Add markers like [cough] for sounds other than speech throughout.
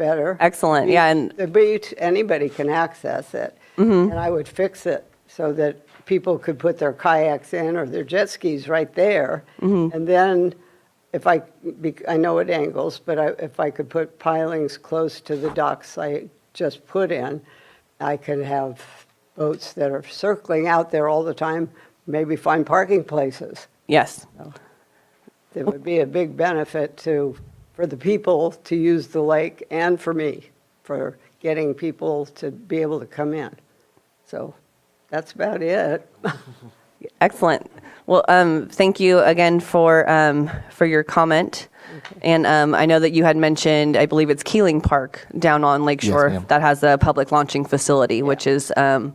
better. Excellent, yeah, and- Mm-hmm. The beach, anybody can access it. And I would fix it so that people could put their kayaks in or their jet skis right there. Mm-hmm. And then if I, be- I know it angles, but I- if I could put pilings close to the docks I just put in, I could have boats that are circling out there all the time, maybe find parking places. Yes. It would be a big benefit to, for the people to use the lake and for me, for getting people to be able to come in. So that's about it. Excellent. Well, um, thank you again for um, for your comment. And um, I know that you had mentioned, I believe it's Keeling Park down on Lakeshore ma'am. that has a public launching facility, which is um,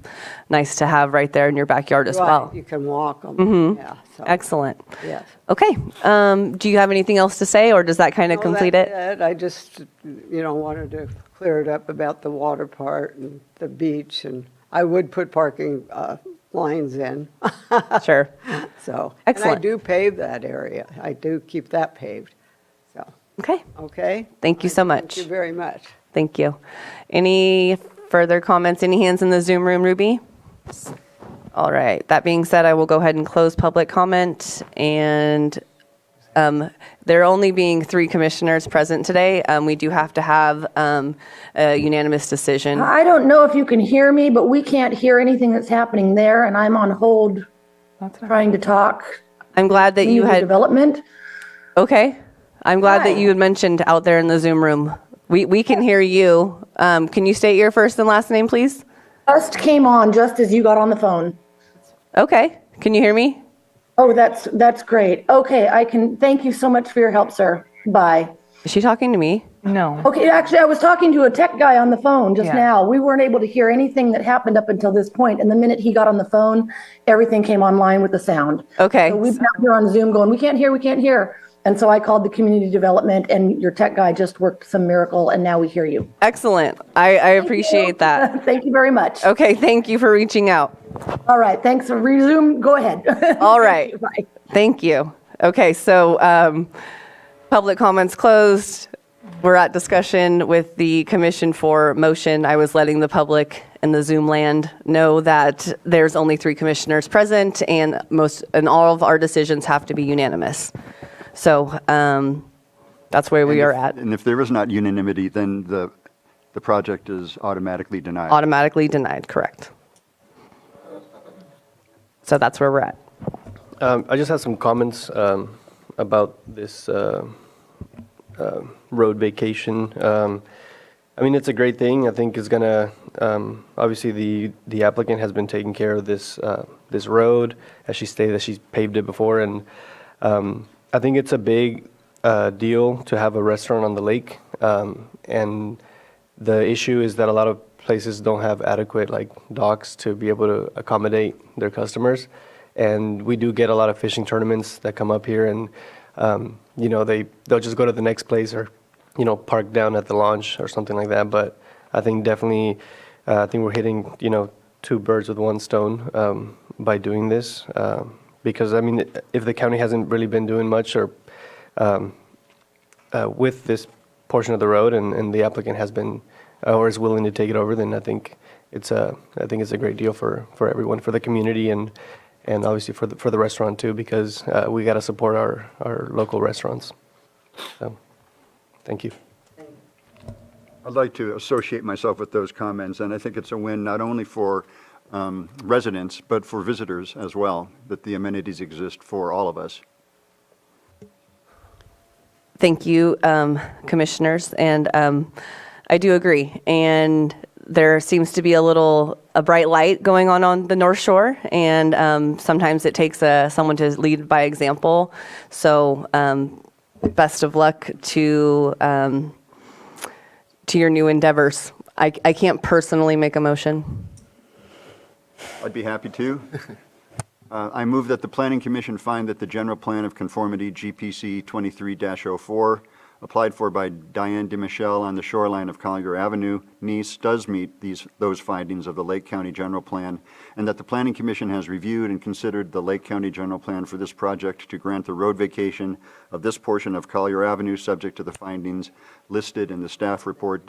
nice to have right there in your backyard as [laughs] Right, well. Mm-hmm. You can walk them, yeah. so, Excellent. Yes. Okay. Um, do you have anything else to say, or does that kind of No, complete that's it? I just, you know, wanted to clear it up about the water part and the beach, and I would put parking uh, lines in, [laughs] Sure. so. And I Excellent. do pave that area. I do keep that paved, so, Okay. okay? Thank you so much. Thank you very much. Thank you. Any further comments? Any hands in the Zoom room, Ruby? All right. That being said, I will go ahead and close public comment. And um, there only being three commissioners present today, um, we do have to have um, a unanimous decision. I don't know if you can hear me, but we can't hear anything that's happening there, and I'm on hold trying to talk. I'm glad that you community had, Development. okay. I'm glad that Hi. you had mentioned out there in the Zoom room. We, we can hear you. Um, Can you state your first and last name, please? Just came on just as you got on the phone. Okay. Can you hear me? Oh, that's, that's great. Okay, I can, thank you so much for your help, sir. Bye. Is she talking to me? Okay, actually, I was talking to a tech guy on the phone just now. We weren't able to hear anything that happened up until this point, and the minute he got on the phone, everything came online with the sound. Okay. So we've been out here on Zoom going, we can't hear, we can't hear. And so I called the community development, and your tech guy just worked some miracle, and now we hear you. Excellent. I, I appreciate [laughs] that. Thank you very much. Okay, thank you for reaching out. All right, thanks. Resume, go ahead. [laughs] All right. Bye. Thank you. Okay, so um, public comments closed. We're at discussion with the commission for motion. I was letting the public and the Zoom land know that there's only three commissioners present, and most and all of our decisions have to be unanimous. So um, that's where we And are if- at. And if there is not unanimity, then the, the project is automatically denied. Automatically denied. Correct. So that's where we're at. Um, I just had some comments um, about this uh, uh, road vacation. Um, I mean, it's a great thing. I think it's gonna, um, obviously, the the applicant has been taking care of this uh, this road, as she stated, that she's paved it before, and um, I think it's a big uh, deal to have a restaurant on the lake. Um, And the issue is that a lot of places don't have adequate, like, docks to be able to accommodate their customers and we do get a lot of fishing tournaments that come up here and um, you know they they'll just go to the next place or you know park down at the launch or something like that but i think definitely uh, i think we're hitting you know two birds with one stone um, by doing this um, because i mean if the county hasn't really been doing much or um, uh, with this portion of the road and, and the applicant has been uh, or is willing to take it over, then I think it's a I think it's a great deal for, for everyone, for the community, and and obviously for the for the restaurant too, because uh, we got to support our our local restaurants. So, thank you. I'd like to associate myself with those comments, and I think it's a win not only for um, residents, but for visitors as well, that the amenities exist for all of us. Thank you, um, commissioners, and um, I do agree. And there seems to be a little a bright light going on on the North Shore, and um, sometimes it takes uh someone to lead by example. So, um, best of luck to um, to your new endeavors. I, I can't personally make a motion. I'd be happy to. Uh, I move that the Planning Commission find that the general plan of conformity GPC 23-04, applied for by Diane DiMichele on the shoreline of Collier Avenue, Nice, does meet these, those findings of the Lake County General Plan, and that the Planning Commission has reviewed and considered the Lake County General Plan for this project to grant the road vacation of this portion of Collier Avenue, subject to the findings listed in the staff report